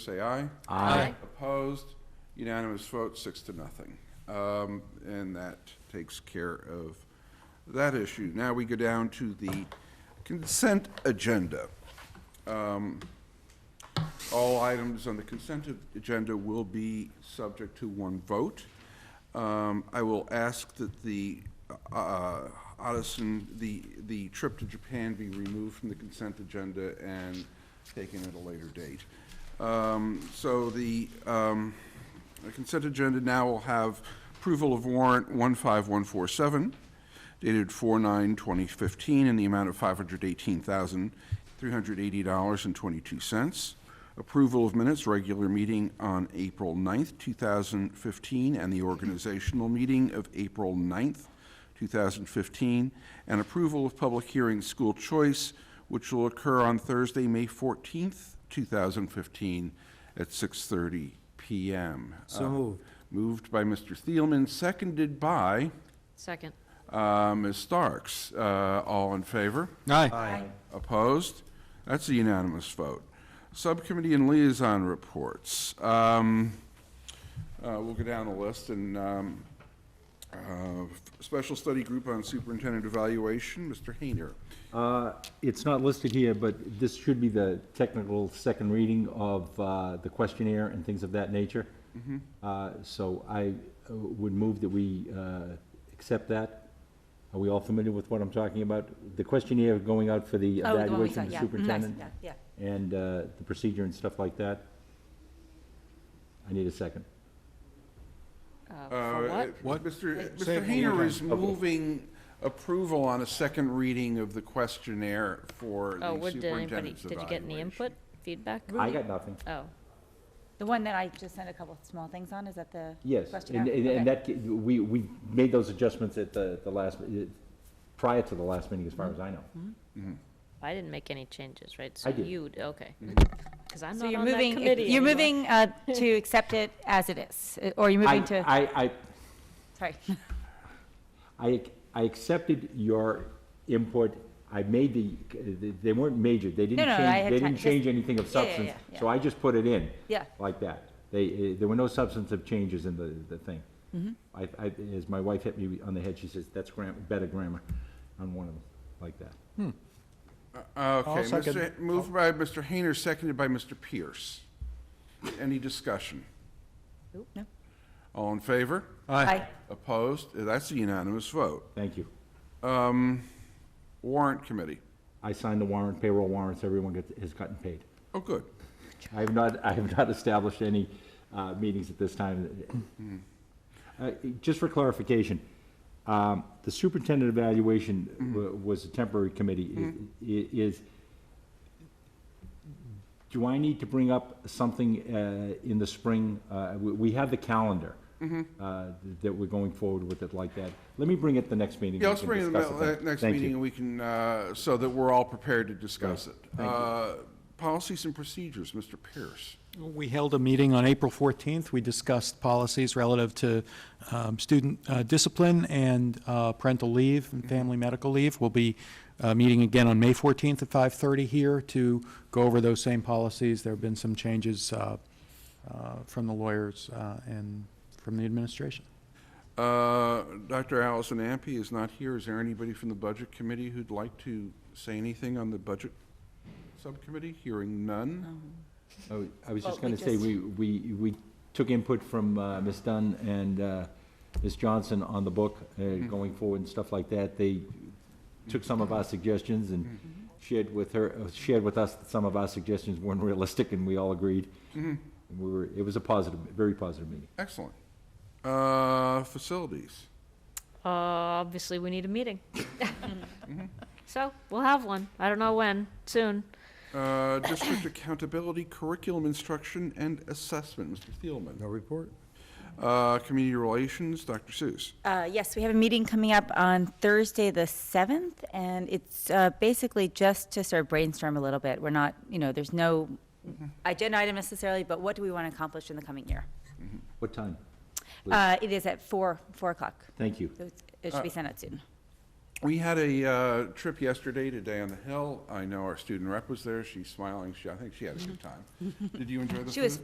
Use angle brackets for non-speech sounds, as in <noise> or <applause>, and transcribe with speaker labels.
Speaker 1: say aye.
Speaker 2: Aye.
Speaker 1: Opposed? Unanimous vote, six to nothing. Um, And that takes care of that issue. Now we go down to the consent agenda. Um, All items on the consent a- agenda will be subject to one vote. Um, I will ask that the uh, Odison, the, the trip to Japan be removed from the consent agenda and taken at a later date. Um, So the um, the consent agenda now will have approval of warrant 15147 dated 4/9/2015 in the amount of $518,380.22. Approval of minutes, regular meeting on April 9th, 2015, and the organizational meeting of April 9th, 2015, and approval of public hearing school choice, which will occur on Thursday, May 14th, 2015, at 6:30 PM.
Speaker 3: So
Speaker 1: Uh,
Speaker 3: moved.
Speaker 1: Moved by Mr. Thielman, seconded by
Speaker 2: Second.
Speaker 1: uh, Ms. Starks. Uh, All in favor?
Speaker 3: Aye.
Speaker 1: Opposed? That's a unanimous vote. Subcommittee and liaison reports. Um, uh, We'll go down the list and um, uh, Special Study Group on Superintendent Evaluation, Mr. Hayner.
Speaker 4: Uh, It's not listed here, but this should be the technical second reading of uh, the questionnaire and things of that nature. Uh, So I uh, would move that we uh, accept that. Are we all familiar with what I'm talking about? The questionnaire going out for the
Speaker 5: Oh, the one we
Speaker 4: evaluation of
Speaker 5: saw,
Speaker 4: the
Speaker 5: yeah.
Speaker 4: superintendent
Speaker 5: Nice, Yeah,
Speaker 4: and uh, the procedure and stuff like that. I need a second.
Speaker 2: Uh, For
Speaker 1: Uh,
Speaker 2: what?
Speaker 3: What?
Speaker 1: Mr.
Speaker 3: Say it
Speaker 1: Mr.
Speaker 3: one more
Speaker 1: Hayner
Speaker 3: time.
Speaker 1: is moving approval on a second reading of the questionnaire for the
Speaker 2: Oh, what, did anybody,
Speaker 1: superintendent's evaluation.
Speaker 2: did you get any input, feedback?
Speaker 4: I got nothing.
Speaker 2: Oh,
Speaker 5: the one that I just sent a couple of small things on, is that the
Speaker 4: Yes,
Speaker 5: questionnaire?
Speaker 4: and, and and
Speaker 5: Okay.
Speaker 4: that, ca- we, we made those adjustments at the, the last, eh, prior to the last meeting, as far
Speaker 5: Mm-hmm.
Speaker 4: as I know.
Speaker 2: I didn't make any changes, right?
Speaker 4: I did. Mm-hmm.
Speaker 2: So you, okay. Because I'm
Speaker 5: So
Speaker 2: not
Speaker 5: you're
Speaker 2: on that
Speaker 5: moving,
Speaker 2: committee.
Speaker 5: you're
Speaker 2: anymore.
Speaker 5: moving uh, to accept it as it is, uh, or you're
Speaker 4: I,
Speaker 5: moving to,
Speaker 4: I, I,
Speaker 5: sorry.
Speaker 4: I, I accepted your input, I made the, they weren't major, they didn't
Speaker 5: no, I
Speaker 4: change,
Speaker 5: had
Speaker 4: they
Speaker 5: ti-
Speaker 4: didn't
Speaker 5: just-
Speaker 4: change anything of
Speaker 5: Yeah, yeah,
Speaker 4: substance,
Speaker 5: yeah,
Speaker 4: so
Speaker 5: yeah.
Speaker 4: I just put it in.
Speaker 5: Yeah.
Speaker 4: Like that, they, eh, there were no substantive changes in the, the thing.
Speaker 5: Mm-hmm.
Speaker 4: I, I, as my wife hit me on the head, she says, that's gram, better grammar on one of them, like that.
Speaker 1: Uh, Okay,
Speaker 3: I'll second.
Speaker 1: Mr. Ha- moved by Mr. Hayner, seconded by Mr. Pierce. Any discussion?
Speaker 2: Nope.
Speaker 5: No.
Speaker 1: All in favor?
Speaker 5: Aye.
Speaker 1: Opposed? That's a unanimous vote.
Speaker 4: Thank you.
Speaker 1: Um, Warrant Committee.
Speaker 4: I signed the warrant, payroll warrants, everyone gets, has gotten paid.
Speaker 1: Oh, good.
Speaker 4: I have not, I have not established any uh, meetings at this
Speaker 1: Hmm.
Speaker 4: time. Uh, Just for clarification, um, the superintendent evaluation wa-
Speaker 1: Mm-hmm.
Speaker 4: was a temporary committee. I- i- Is, do I need to bring up something uh, in the spring? Uh, We we have the calendar
Speaker 1: Mm-hmm.
Speaker 4: uh, that we're going forward with it like that. Let me bring it the next meeting.
Speaker 1: Yeah,
Speaker 4: We
Speaker 1: let's
Speaker 4: can
Speaker 1: bring it
Speaker 4: discuss it
Speaker 1: the
Speaker 4: then.
Speaker 1: next
Speaker 4: Thank
Speaker 1: meeting,
Speaker 4: you.
Speaker 1: and we can, uh, so that we're all prepared to discuss it.
Speaker 4: Thank you.
Speaker 1: Uh, Policies and procedures, Mr. Pierce.
Speaker 3: We held a meeting on April 14th. We discussed policies relative to um, student uh, discipline and uh, parental leave and family medical leave. We'll be uh, meeting again on May 14th at 5:30 here to go over those same policies. There have been some changes uh, uh, from the lawyers uh, and from the administration.
Speaker 1: Uh, Dr. Allison Ampe is not here. Is there anybody from the Budget Committee who'd like to say anything on the Budget Subcommittee? Hearing none?
Speaker 4: I was- Oh, I was just
Speaker 5: Well, we
Speaker 4: going to say,
Speaker 5: just-
Speaker 4: we, we, we took input from uh, Ms. Dunn and uh, Ms. Johnson on the book, uh, going forward and stuff like that. They took some of our suggestions and shared with her, uh, shared with us that some of our suggestions weren't realistic, and we all agreed. And we were, it was a positive, very positive meeting.
Speaker 1: Excellent. Uh, Facilities.
Speaker 2: Uh, Obviously, we need a meeting. <laughs>
Speaker 5: <laughs>
Speaker 2: So we'll have one. I don't know when, soon.
Speaker 1: Uh,
Speaker 6: <coughs>
Speaker 1: District Accountability, Curriculum Instruction, and Assessment, Mr. Thielman.
Speaker 6: No report?
Speaker 1: Uh, Community Relations, Dr. Seuss.
Speaker 5: Uh, Yes, we have a meeting coming up on Thursday, the 7th, and it's uh, basically just to sort of brainstorm a little bit. We're not, you know, there's no
Speaker 4: Mm-hmm.
Speaker 5: agenda item necessarily, but what do we want to accomplish in the coming year?
Speaker 4: What time? Please.
Speaker 5: Uh, It is at 4, 4 o'clock.
Speaker 4: Thank you.
Speaker 5: So it's- It should be sent out soon.
Speaker 1: We had a uh, trip yesterday to Day on the
Speaker 6: <laughs>
Speaker 1: Hill. I know our student rep was there. She's smiling. She, I think she had a good time. Did you enjoy the food?
Speaker 5: She was